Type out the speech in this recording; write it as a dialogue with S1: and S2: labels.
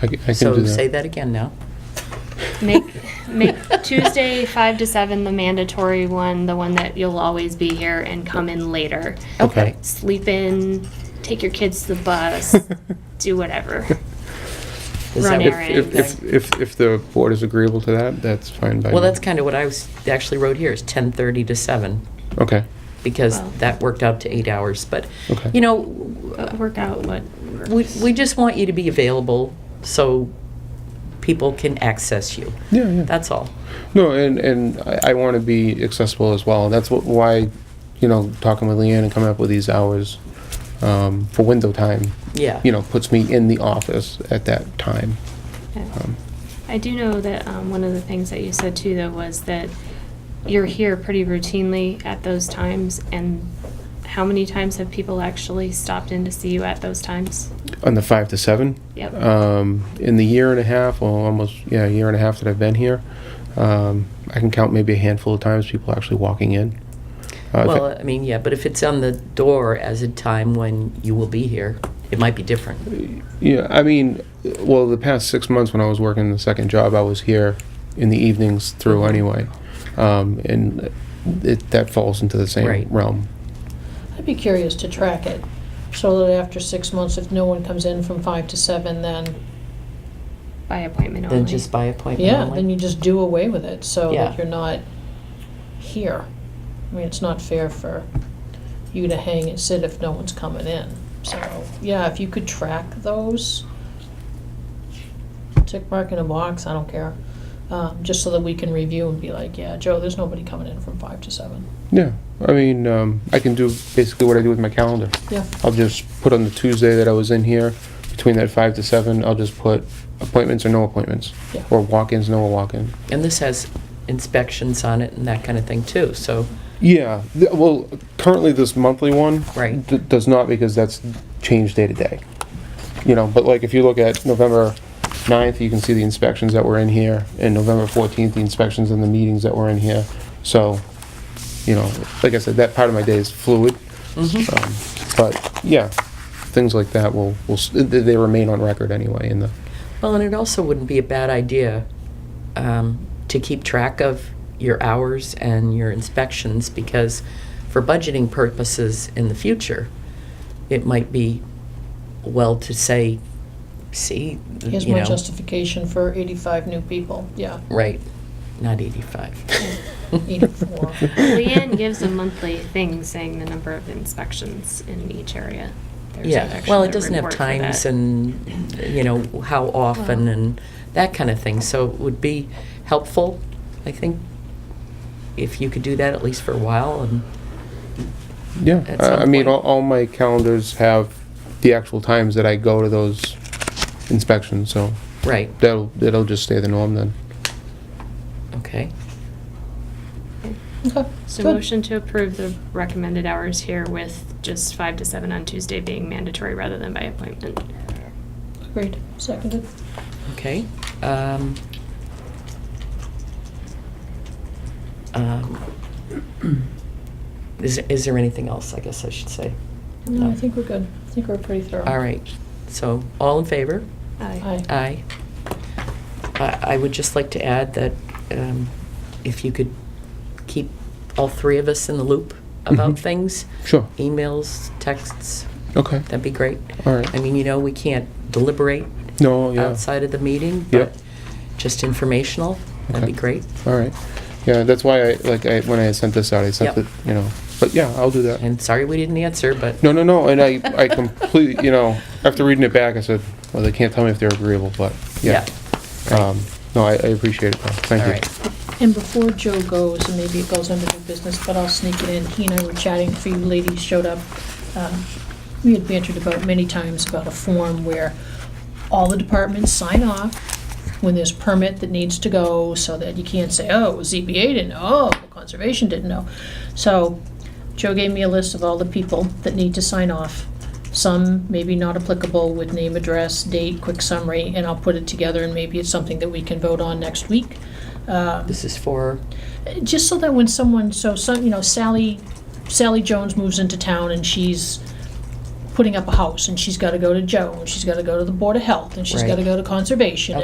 S1: I c- I can do
S2: So say
S1: that.
S2: that again now.
S3: Make, make Tuesday 5 to 7 the mandatory one, the one that you'll always be here, and come in later.
S1: Okay.
S3: Sleep in, take your kids to the bus, do whatever.
S2: Is
S3: Run
S2: that
S1: If,
S2: what-
S3: errands.
S1: if, if, if if the board is agreeable to that, that's fine by me.
S2: Well, that's kind of what I was, actually wrote here, is 10:30 to 7,
S1: Okay,
S2: because
S3: Wow.
S2: that worked out to eight hours. But,
S1: Okay.
S2: you know,
S3: But Uh, work out what works.
S2: we, we just want you to be available so people can access you.
S1: yeah, yeah.
S2: That's all.
S1: No, and, and I, I want to be accessible as well. That's what, why, you know, talking with Leanne and coming up with these hours um, for window time,
S2: Yeah.
S1: you know, puts me in the office at that time.
S3: Yeah.
S1: Um,
S3: I do know that um, one of the things that you said too, though, was that you're here pretty routinely at those times, and how many times have people actually stopped in to see you at those times?
S1: On the five to seven?
S3: Yep.
S1: Um, in the year and a half, well, almost, yeah, a year and a half that I've been here, um, I can count maybe a handful of times people actually walking in. Uh, if I-
S2: Well, I mean, yeah, but if it's on the door as a time when you will be here, it might be different.
S1: Yeah, I mean, well, the past six months when I was working the second job, I was here in the evenings through anyway, um, and it, that falls into the same
S2: Right.
S1: realm.
S4: I'd be curious to track it, so that after six months, if no one comes in from five to seven, then,
S3: By appointment only.
S2: Then just by appointment
S4: yeah,
S2: only.
S4: then you just do away with it, so
S2: Yeah.
S4: that you're not here. I mean, it's not fair for you to hang and sit if no one's coming in. So, yeah, if you could track those, tick mark in a box, I don't care, um, just so that we can review and be like, yeah, Joe, there's nobody coming in from five to seven.
S1: Yeah, I mean, um, I can do basically what I do with my calendar.
S4: Yeah,
S2: Uh,
S1: I'll just put on the Tuesday that I was in here, between that five to seven, I'll just put appointments or no appointments,
S4: Yeah.
S1: or walk-ins, no walk-in.
S2: And this has inspections on it and that kind of thing, too, so,
S1: Yeah, th- well, currently this monthly one
S2: Right.
S1: d- does not because that's changed day to day. You know, but like if you look at November 9th, you can see the inspections that were in here, and November 14th, the inspections and the meetings that were in here. So, you know, like I said, that part of my day is fluid. Um, But, yeah, things like that will, will, s- th- they remain on record anyway in the,
S2: well, and it also wouldn't be a bad idea um, to keep track of your hours and your inspections, because for budgeting purposes in the future, it might be well to say, see,
S4: here's
S2: you
S4: my
S2: know,
S4: justification for eighty-five new people, yeah,
S2: right, not 85.
S4: eighty-four.
S3: Leanne gives a monthly thing saying the number of inspections in each area. There's an
S2: Yeah,
S3: actual
S2: well, it doesn't have
S3: report for that.
S2: times and, you know, how often
S3: Well-
S2: and that kind of thing. So it would be helpful, I think, if you could do that at least for a while and,
S1: yeah.
S2: At some
S1: I I mean,
S2: point.
S1: all, all my calendars have the actual times that I go to those inspections, so.
S2: right,
S1: That'll, that'll just stay the norm then.
S2: okay.
S4: Okay,
S3: So
S4: good.
S3: motion to approve the recommended hours here with just five to seven on Tuesday being mandatory rather than by appointment.
S4: Agreed, seconded.
S2: Okay. um, um, Is, is there anything else, I guess I should say?
S4: No, I think we're good. I think we're pretty thorough.
S2: All right, so, all in favor?
S4: Aye.
S2: Aye. I I would just like to add that um, if you could keep all three of us in the loop about
S1: Mhm.
S2: things,
S1: Sure.
S2: emails, texts,
S1: Okay.
S2: that'd be great.
S1: All right.
S2: I mean, you know, we can't deliberate
S1: No, yeah.
S2: outside of the meeting,
S1: Yep.
S2: but just informational, that'd be
S1: Okay.
S2: great.
S1: All right. Yeah, that's why I, like, I, when I sent this out, I sent
S2: Yep.
S1: it, you know, but yeah, I'll do that.
S2: And sorry we didn't answer, but.
S1: No, no, no, and I, I completely, you know, after reading it back, I said, well, they can't tell me if they're agreeable, but, yeah. Um, no, I, I appreciate it, though.
S2: All
S1: Thank you.
S2: right.
S4: And before Joe goes, and maybe it goes under new business, but I'll sneak it in, he and I were chatting, a few ladies showed up. Um, We had bantered about many times about a form where all the departments sign off when there's permit that needs to go, so that you can't say, oh, ZBA didn't know, oh, Conservation didn't know. So Joe gave me a list of all the people that need to sign off. Some maybe not applicable with name, address, date, quick summary, and I'll put it together, and maybe it's something that we can vote on next week. Um,
S2: This is for,
S4: just so that when someone, so some, you know, Sally, Sally Jones moves into town and she's putting up a house, and she's gotta go to Joe, and she's gotta go to the Board of Health, and she's
S2: Right.
S4: gotta go to Conservation,